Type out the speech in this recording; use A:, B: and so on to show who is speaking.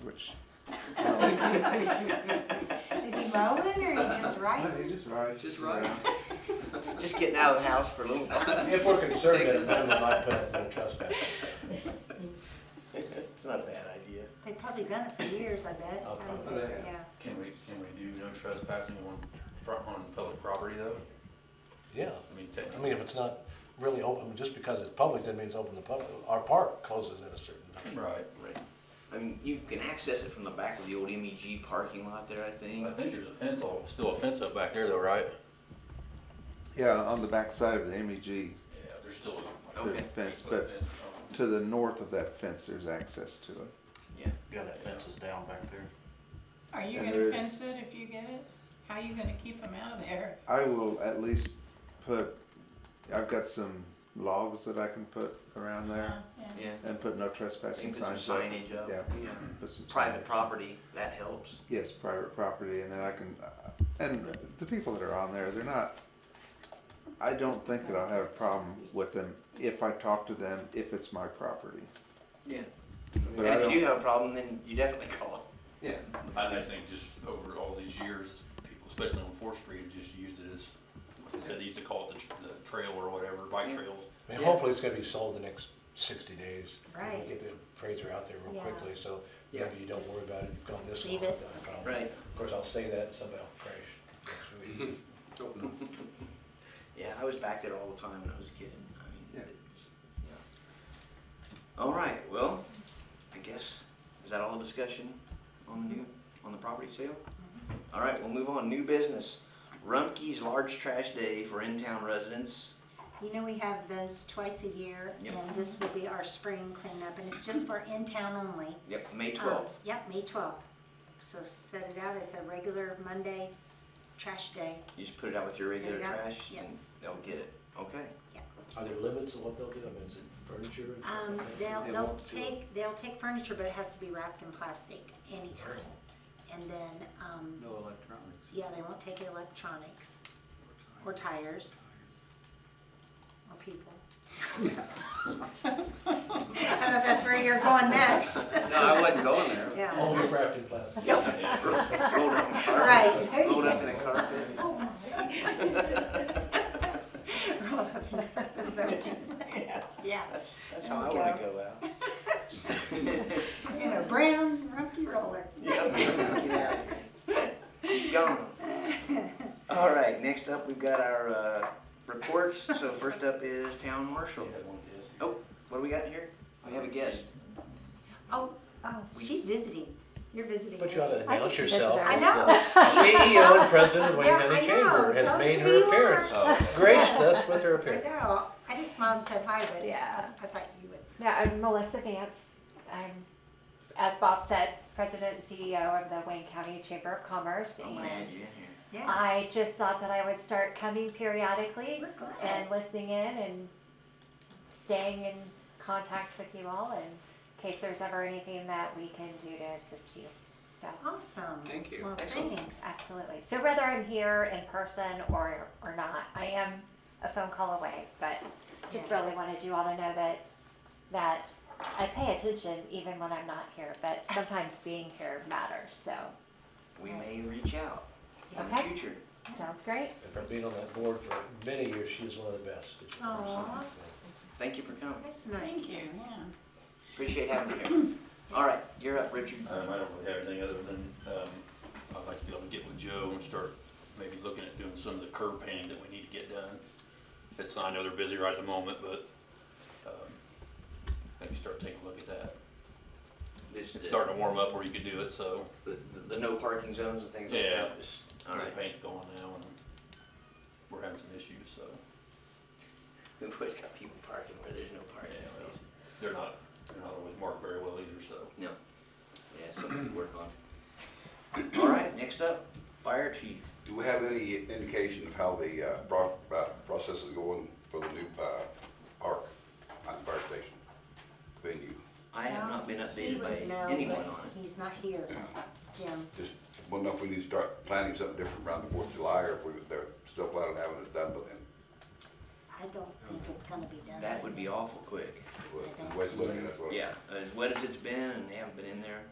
A: Rivers.
B: Is he rolling or he just writing?
C: Just right.
D: Just right.
C: Yeah.
D: Just getting out of the house for a little while.
A: If we're conservative, then we might put no trespassing.
D: It's not a bad idea.
B: They've probably done it for years, I bet.
A: Oh,
B: I would
A: probably.
B: think, Yeah.
E: Can we, can we do no trespassing on, pro- on public property though?
F: Yeah,
E: I mean,
F: I
E: technically,
F: mean, if it's not really open, just because it's public, that means open to public. Our park closes at a certain time.
E: right.
D: Right. I mean, you can access it from the back of the old MEG parking lot there, I think.
E: I think there's a fence, all- still a fence up back there though, right?
C: Yeah, on the back side of the MEG,
E: Yeah, there's still a.
D: Okay.
C: Fence, but- to the north of that fence, there's access to it.
D: Yeah.
E: Yeah, that fence is down back there.
G: Are you
C: And
G: gonna
C: there's-
G: fence it if you get it? How you gonna keep them out of there?
C: I will at least put, I've got some logs that I can put around
D: Uh-huh.
C: there
G: Yeah.
D: Yeah.
C: and put no trespassing
D: Think there's
C: signs
D: some
C: up.
D: signage up.
C: Yeah,
D: Yeah.
C: put some.
D: Private
C: signage.
D: property, that helps.
C: Yes, private property, and then I can, uh, and the people that are on there, they're not, I don't think that I'll have a problem with them if I talk to them, if it's my property.
D: Yeah.
C: But I
D: and if you do
C: don't,
D: have a problem, then you definitely call.
C: yeah,
E: I just think just over all these years, people, especially on Fourth Street, have just used it as, like I said, they used to call it the, tr- the trail or whatever, bike
D: Yeah.
E: trails.
F: I mean, hopefully it's gonna be sold the next sixty days. We can
B: Right.
F: Get the appraiser out there real
B: Yeah.
F: quickly, so
D: Yeah.
F: maybe you don't worry about it, you've gone this long
B: Leave
F: without
B: it.
F: a problem.
D: Right.
F: Of course, I'll say that, and somebody will crash. next week.
D: Yeah, I was back there all the time when I was a kid. I mean,
C: Yeah.
D: it's, yeah. All right. Well, I guess is that all the discussion on the new on the property sale? All right. We'll move on. New business. Rumpke's large trash day for in-town residents.
B: You know, we have those twice a year
D: Yep.
B: and this will be our spring cleanup and it's just for in-town only.
D: Yep, May
B: Um,
D: twelfth.
B: Yep, May twelfth. So set it out. It's a regular Monday trash day.
D: You just put it out with your regular
B: Put it out,
D: trash.
B: yes.
D: And they'll get it. Okay.
F: Are there limits on what they'll do? I mean, is it furniture? and stuff
B: Um,
F: like that?
B: they'll,
C: They
B: they'll
C: won't do it.
B: take, they'll take furniture, but it has to be wrapped in plastic anytime. And then, um,
A: No electronics.
B: yeah, they won't take electronics or tires or people. I thought that's where you're going next.
D: No, I wasn't going there.
B: Yeah,
F: Only wrapped in plastic.
D: Rolled up in the carpet.
B: Right, there you
D: Rolled up in the carpet.
B: Oh, roll up in the sandwiches. Yeah,
D: That's that's
B: There
D: how I
B: you
D: want to
B: go.
D: go out.
B: in a brown rumpy roller.
D: Yeah, get out of here. He's gone. All right, next up, we've got our uh, reports. So first up is town marshal. Oh, what do we got here? We have a guest.
B: Oh, oh, she's visiting. You're visiting.
F: But you ought to
H: I
F: announce
H: just missed
F: yourself.
H: that.
B: I
F: as
B: know.
F: the CEO and president of Wayne
B: Yeah, I
F: County
B: know.
F: Chamber
B: Tell
F: has
B: us
F: made
B: who you
F: her appearance.
B: are. Oh,
F: Graced us with her
B: I
F: appearance.
B: know. I just smiled and said hi, but
H: Yeah.
B: I thought you would.
H: No, I'm Melissa Vance. I'm, as Bob said, president and CEO of the Wayne County Chamber of Commerce.
D: Oh, man,
H: And
D: you in here.
B: Yeah.
H: I just thought that I would start coming periodically
B: We're glad.
H: and listening in and staying in contact with you all in case there's ever anything that we can do to assist you. So,
B: Awesome.
D: Thank you.
B: Well,
D: Excellent.
B: thanks.
H: absolutely. So whether I'm here in person or, or not, I am a phone call away, but just
B: Yeah.
H: really wanted you all to know that that I pay attention even when I'm not here, but sometimes being here matters. So
D: We may reach out in the
H: Okay.
D: future.
H: sounds great.
F: And from being on that board for many years, she is one of the best. It's-
B: Aw.
D: Thank you for coming.
B: That's nice.
G: Thank you, yeah.
D: Appreciate having you here. All right, you're up, Richard.
E: Um, I don't really have anything other than, um, I'd like to be able to get with Joe and start maybe looking at doing some of the curb painting that we need to get done. It's, I know they're busy right at the moment, but, um, maybe start taking a look at that.
D: This-
E: It's starting to warm up where you could do it, so
D: The, the, the no parking zones and things like
E: Yeah.
D: that. Just- All
E: the
D: right.
E: paint's going now and we're having some issues, so
D: We've always got people parking where there's no parking
E: Yeah, well.
D: space.
E: they're not, they're not always marked very well either, so.
D: No. Yeah, something to work on. All right, next up, fire chief.
I: Do we have any indication of how the uh, pro- uh, process is going for the new uh, park on the fire station venue?
D: I have not been
B: Well, he
D: updated
B: would
D: by
B: know,
D: anyone
B: but
D: on it.
B: He's not here, Jim.
I: Just wondering if we need to start planning something different around the Fourth of July, or if we, they're still planning on having it done by then.
B: I don't think it's gonna be done.
D: That would be awful quick.
I: Well, the way it's looking, that's what.
D: Yeah, as wet as it's been and they haven't been in there,